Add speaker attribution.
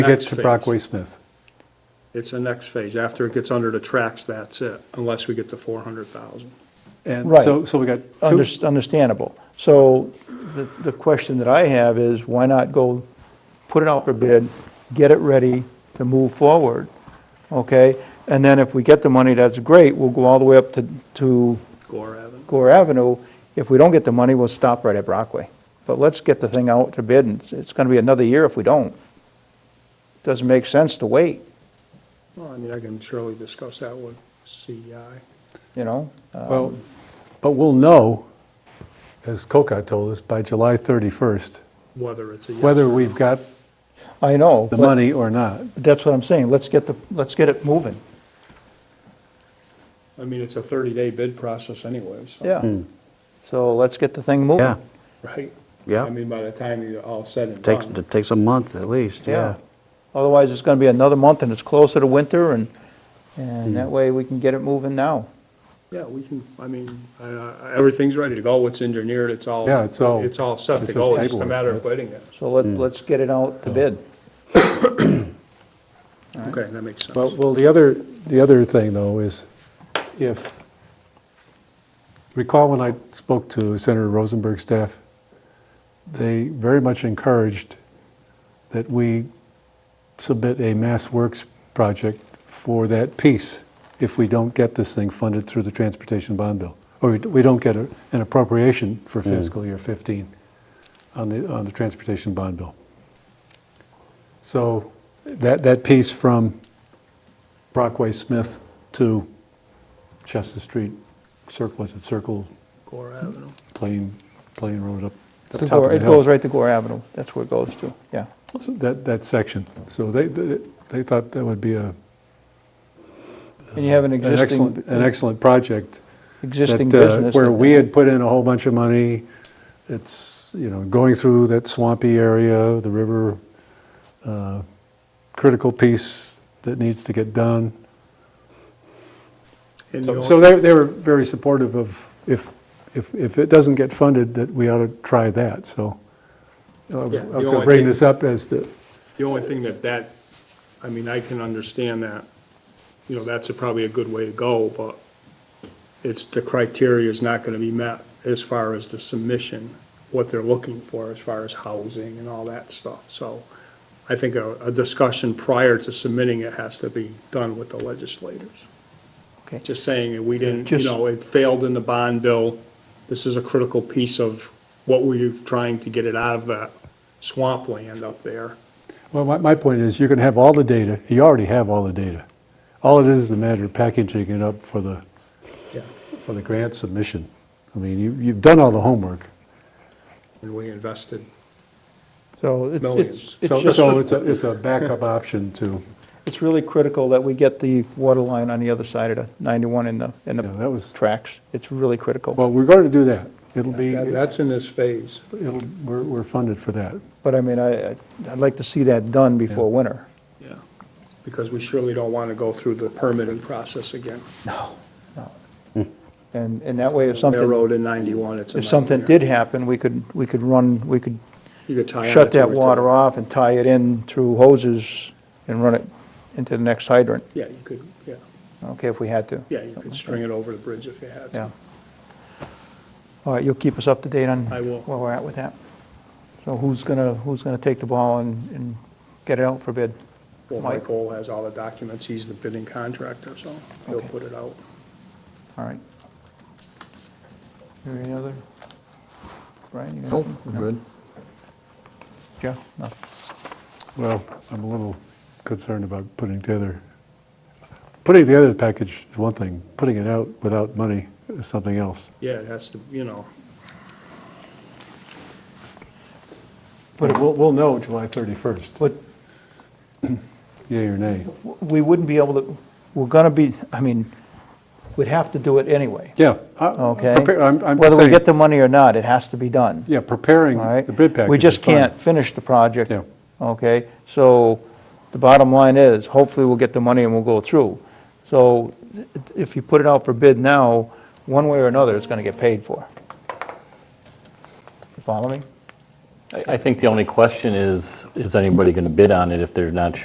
Speaker 1: to get
Speaker 2: Next
Speaker 1: to
Speaker 2: phase.
Speaker 1: Brockway Smith.
Speaker 2: It's the next phase. After it gets under the tracks, that's it, unless we get to 400,000.
Speaker 1: And
Speaker 3: Right.
Speaker 1: so, so we got two,
Speaker 3: Unders- Understandable. So the, the question that I have is, why not go, put it out for bid, get it ready to move forward, okay? And then if we get the money, that's great, we'll go all the way up to, to
Speaker 2: Gore Avenue.
Speaker 3: Gore Avenue. If we don't get the money, we'll stop right at Brockway. But let's get the thing out to bid, and it's- it's gonna be another year if we don't. Doesn't make sense to wait,
Speaker 2: Well, I mean, I can surely discuss that with E CEI.
Speaker 3: you know? Uh,
Speaker 1: well, but we'll know, as Coca told us, by July 31st,
Speaker 2: whether it's a yes.
Speaker 1: whether we've got
Speaker 3: I know.
Speaker 1: the
Speaker 3: but-
Speaker 1: money or not.
Speaker 3: but That's what I'm saying, let's get the, let's get it moving,
Speaker 2: I mean, it's a 30-day bid process anyways. so-
Speaker 3: yeah.
Speaker 1: Hmm.
Speaker 3: So let's get the thing moving.
Speaker 4: Yeah,
Speaker 2: Right?
Speaker 4: Yeah.
Speaker 2: I mean, by the time you're all said and
Speaker 4: takes,
Speaker 2: done.
Speaker 4: it takes a month at least, yeah.
Speaker 3: Yeah. Otherwise, it's going to be another month and it's closer to winter and,
Speaker 1: Hmm.
Speaker 3: and that way we can get it moving now.
Speaker 2: Yeah, we can, I mean, I- I- everything's ready to go. It's engineered, it's all.
Speaker 1: Yeah, it's all-
Speaker 2: It's all set
Speaker 1: it's
Speaker 2: to
Speaker 1: just
Speaker 2: go. It's just a
Speaker 1: paperwork,
Speaker 2: matter of
Speaker 1: that's-
Speaker 2: waiting it.
Speaker 3: So
Speaker 1: Hmm.
Speaker 3: let's, let's get it out to bid.
Speaker 2: Okay, that makes sense.
Speaker 1: Well, well, the other, the other thing, though, is if, recall when I spoke to Senator Rosenberg's staff, they very much encouraged that we submit a mass works project for that piece if we don't get this thing funded through the transportation bond bill, or we- we don't get a- an appropriation for fiscal year 15 on the, on the transportation bond bill. So that, that piece from Brockway Smith to Chester Street, Circle, was it Circle,
Speaker 2: Gore Avenue.
Speaker 1: Plain, Plain Road up
Speaker 3: It's
Speaker 1: the
Speaker 3: to
Speaker 1: top
Speaker 3: Gore-
Speaker 1: of the
Speaker 3: It
Speaker 1: hill?
Speaker 3: goes right to Gore Avenue. That's where it goes to, yeah.
Speaker 1: So That, that section. So they, they they thought that would be a,
Speaker 3: And you have an
Speaker 1: an excellent,
Speaker 3: existing,
Speaker 1: an excellent project.
Speaker 3: existing
Speaker 1: that, uh,
Speaker 3: business.
Speaker 1: Where
Speaker 3: that-
Speaker 1: we had put in a whole bunch of money, it's, you know, going through that swampy area, the river, uh, critical piece that needs to get done.
Speaker 2: And
Speaker 1: So-
Speaker 2: the
Speaker 1: So they, they were very supportive of, if, if, if it doesn't get funded, that we ought to try that, so. I was
Speaker 2: Yeah,
Speaker 1: I
Speaker 2: the
Speaker 1: was gonna
Speaker 2: only
Speaker 1: bring
Speaker 2: thing-
Speaker 1: this up as to,
Speaker 2: The only thing that that, I mean, I can understand that, you know, that's a- probably a good way to go, but it's, the criteria is not gonna be met as far as the submission, what they're looking for as far as housing and all that stuff. So I think a, a discussion prior to submitting it has to be done with the legislators.
Speaker 3: Okay.
Speaker 2: Just saying, that we didn't, you
Speaker 3: Just-
Speaker 2: know, it failed in the bond bill. This is a critical piece of what we're trying to get it out of that swampland up there.
Speaker 1: well, my, my point is, you're gonna have all the data, you already have all the data. All it is is a matter of packaging it up for the,
Speaker 2: Yeah.
Speaker 1: for the grant submission. I mean, you, you've done all the homework.
Speaker 2: And we invested
Speaker 3: So it's- it's,
Speaker 2: Millions.
Speaker 3: it's
Speaker 1: So,
Speaker 3: just,
Speaker 1: so it's a, it's a backup option to,
Speaker 3: it's really critical that we get the water line on the other side of the 91 in the, in
Speaker 1: you know, that
Speaker 3: the
Speaker 1: was,
Speaker 3: tracks. It's really critical.
Speaker 1: well, we're going to do that. It'll be,
Speaker 2: That-
Speaker 1: it'll,
Speaker 2: That's in this phase.
Speaker 1: we're, we're funded for that.
Speaker 3: But I mean, I, I'd like to see that done before winter.
Speaker 2: Yeah. Because we surely don't want to go through the permitting process again.
Speaker 3: And, and that way if something.
Speaker 2: Railroad in 91, it's a
Speaker 3: If something
Speaker 2: nightmare.
Speaker 3: did happen, we could, we could run, we could
Speaker 2: You could tie on
Speaker 3: shut
Speaker 2: it to
Speaker 3: that
Speaker 2: it.
Speaker 3: water off and tie it in through hoses and run it into the next hydrant,
Speaker 2: Yeah, you could, yeah,
Speaker 3: okay, if we had to.
Speaker 2: yeah, you could string it over the bridge if you had
Speaker 3: Yeah.
Speaker 2: to.
Speaker 3: All right, you'll keep us up to date on
Speaker 2: I will.
Speaker 3: where we're at with that. So who's gonna, who's gonna take the ball and, and get it out for bid?
Speaker 2: Well,
Speaker 3: Mike.
Speaker 2: Michael has all the documents, he's the bidding contractor, so he'll
Speaker 3: Okay.
Speaker 2: put it out.
Speaker 3: All right. Any other? Brian, you got
Speaker 5: Nope,
Speaker 3: anything?
Speaker 5: we're good.
Speaker 3: Jeff? No.
Speaker 1: Well, I'm a little concerned about putting together, putting together the package is one thing, putting it out without money is something else.
Speaker 2: Yeah, it has to, you know,
Speaker 1: But we'll, we'll know July 31st,
Speaker 3: But
Speaker 1: yea or nay.
Speaker 3: we wouldn't be able to, we're gonna be, I mean, we'd have to do it anyway.
Speaker 1: Yeah. I-
Speaker 3: Okay?
Speaker 1: prepare- I'm, I'm
Speaker 3: Whether we
Speaker 1: saying,
Speaker 3: get the money or not, it has to be done,
Speaker 1: yeah, preparing
Speaker 3: all right?
Speaker 1: the bid package.
Speaker 3: We just
Speaker 1: is fine.
Speaker 3: can't finish the project.
Speaker 1: Yeah.
Speaker 3: Okay? So the bottom line is, hopefully we'll get the money and we'll go through. So it- if you put it out for bid now, one way or another, it's going to get paid for. You follow me?
Speaker 4: I I think the only question is, is anybody going to bid on it if they're not sure